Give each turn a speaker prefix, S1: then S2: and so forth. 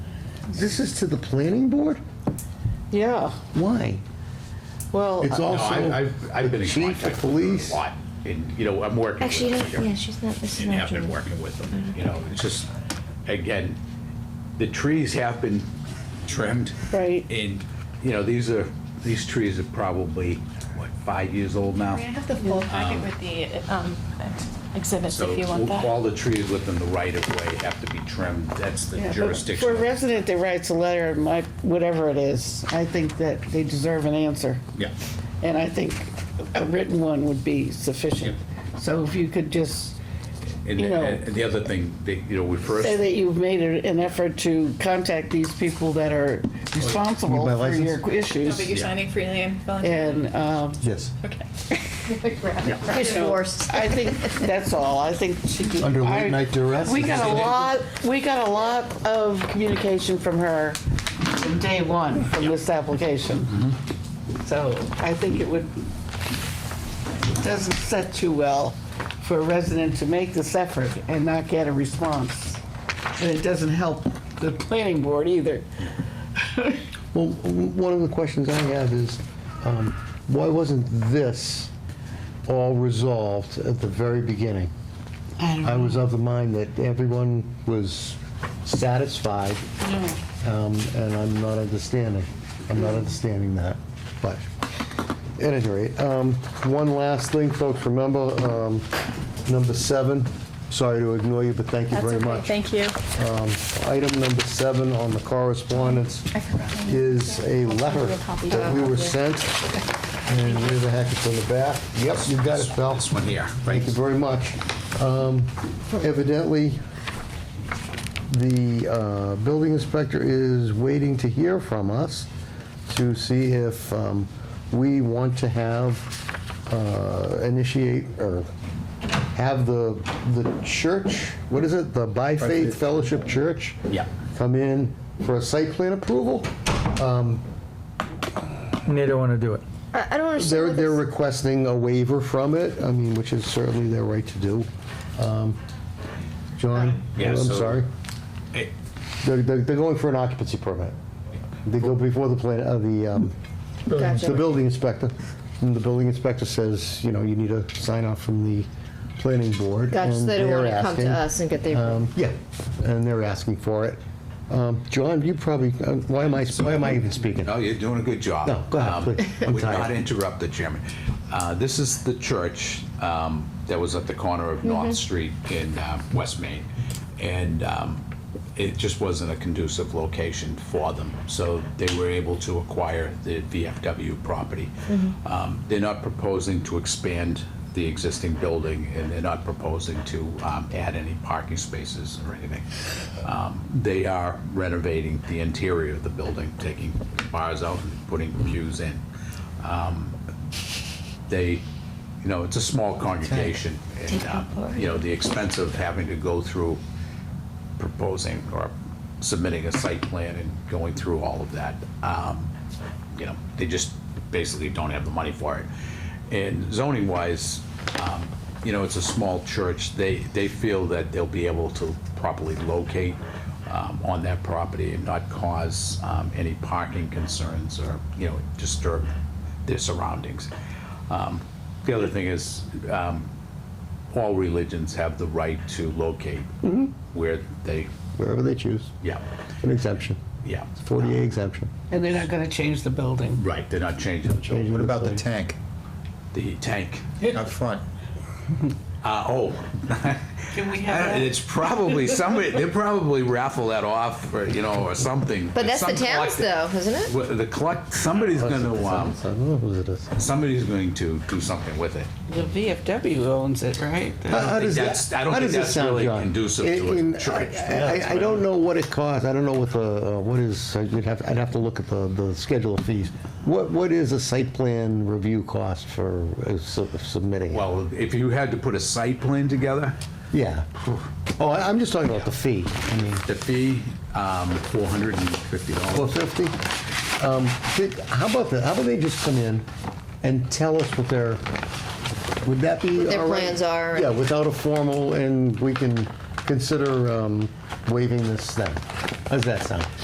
S1: This is to the planning board?
S2: Yeah,
S1: Why?
S2: well,
S1: It's
S3: No, I-
S1: also
S3: I've, I've been in
S1: the chief
S3: contact
S1: of
S3: with police
S1: police.
S3: a lot, and, you know, I'm working with
S4: Actually,
S3: them
S4: you don't- yeah,
S3: here,
S4: she's not, this is
S3: and
S4: not
S3: have been
S4: Julie.
S3: working with them, you know, it's just, again, the trees have been trimmed.
S2: uh, Right.
S3: And, you know, these are, these trees are probably, what, five years old now?
S5: I have the full packet with the um, exhibits
S3: So
S5: if you want that.
S3: all the trees within the right of way have to be trimmed, that's the
S2: yeah, but
S3: jurisdiction.
S2: for a
S3: of-
S2: resident that writes a letter, my, whatever it is, I think that they deserve an answer.
S3: Yeah,
S2: And I think a written one would be sufficient. So if you could just
S3: and,
S2: You know-
S3: and the other thing, that, you know, we first.
S2: say that you've made a- an effort to contact these people that are responsible
S1: Need my
S2: for your
S5: No,
S2: issues.
S5: but you're
S3: Yeah.
S5: signing freely and voluntarily.
S2: And, um,
S1: Yes.
S5: Okay.
S4: You're
S2: you know,
S4: divorced.
S2: I think, that's all, I think she could.
S1: Under late
S2: I-
S1: night duress?
S2: We got a lot, we got a lot of communication from her from day one, from this application. So I think it would, it doesn't set too well for a resident to make this effort and not get a response. And it doesn't help the planning board either.
S1: Well, w- one of the questions I have is, um, why wasn't this all resolved at the very beginning?
S2: I don't
S1: I was of the mind that everyone was satisfied, um, and I'm not understanding. I'm not understanding that, but at any rate, um, one last thing, folks, remember, um, number seven, sorry to ignore you, but thank you
S5: That's
S1: very
S5: okay,
S1: much.
S5: Thank you.
S1: Um, Item number seven on the correspondence is a letter that we were sent, and where the heck it's in the back. Yep, you got it, Phil.
S3: This one here, right?
S1: Thank you very much. Um, Evidently, the uh, building inspector is waiting to hear from us to see if um, we want to have, uh, initiate, or have the, the church, what is it, the By Faith Fellowship Church?
S3: Yeah.
S1: Come in for a site plan approval. Um,
S6: And they don't want to do it.
S4: I I don't understand.
S1: They're,
S4: what
S1: they're
S4: this-
S1: requesting a waiver from it, I mean, which is certainly their right to do. Um, John,
S3: Yeah,
S1: I'm
S3: so-
S1: sorry.
S3: Eh,
S1: They're, they're they're going for an occupancy permit. They go before the plan, uh, the, um, the building inspector. And the building inspector says, you know, you need a sign off from the planning board.
S4: Gotcha, so
S1: and
S4: they don't
S1: they're
S4: want to come
S1: asking-
S4: to us and get their,
S1: um, Yeah, and they're asking for it. Um, John, you probably, uh, why am I, why am I even speaking?
S3: No, you're doing a good job.
S1: No, go ahead,
S3: Um,
S1: please. I'm
S3: Would
S1: tired.
S3: not interrupt the chairman. Uh, This is the church um, that was at the corner of North Street in uh, West Main. And um, it just wasn't a conducive location for them. So they were able to acquire the VFW property. Um, They're not proposing to expand the existing building, and they're not proposing to um, add any parking spaces or anything. Um, They are renovating the interior of the building, taking bars out and putting pews in. Um, They, you know, it's a small congregation, and, um, you know, the expense of having to go through proposing or submitting a site plan and going through all of that. Um, You know, they just basically don't have the money for it. And zoning wise, um, you know, it's a small church. They, they feel that they'll be able to properly locate um, on that property and not cause um, any parking concerns or, you know, disturb their surroundings. Um, The other thing is, um, all religions have the right to locate where they,
S1: Wherever they choose,
S3: yeah,
S1: an exemption,
S3: yeah.
S1: 40A exemption.
S2: And they're not gonna change the building.
S3: Right, they're not changing the children.
S1: What
S7: About the tank
S3: The tank.
S7: up front.
S3: Uh, oh,
S2: Can we
S3: And it's probably somebody, they probably raffle that off, or, you know, or something.
S4: but that's the
S3: Some
S4: town's though,
S3: collective-
S4: isn't it?
S3: Well, The collect, somebody's gonna, um,
S1: I don't know who it is.
S3: somebody's going to do something with it.
S2: The VFW owns it, right?
S1: How- how
S3: think
S1: does that-
S3: that's- I don't
S1: how
S3: think
S1: does it
S3: that's
S1: sound,
S3: really
S1: John?
S3: conducive to a
S1: In- in-
S3: church.
S1: I- I, I don't know what it costs, I don't know what the, uh, what is, I'd have, I'd have to look at the, the schedule of fees. What, what is a site plan review cost for uh, su- submitting? it?
S3: Well, if you had to put a site plan together,
S1: Yeah. Oh, I- I'm just talking about the fee. I mean,
S3: the fee, um, four hundred and fifty dollars.
S1: 450? Um, did- How about that, how about they just come in and tell us what their, would that be all right?
S4: their plans are.
S1: Yeah, without a formal, and we can consider um, waiving this then. How's that sound?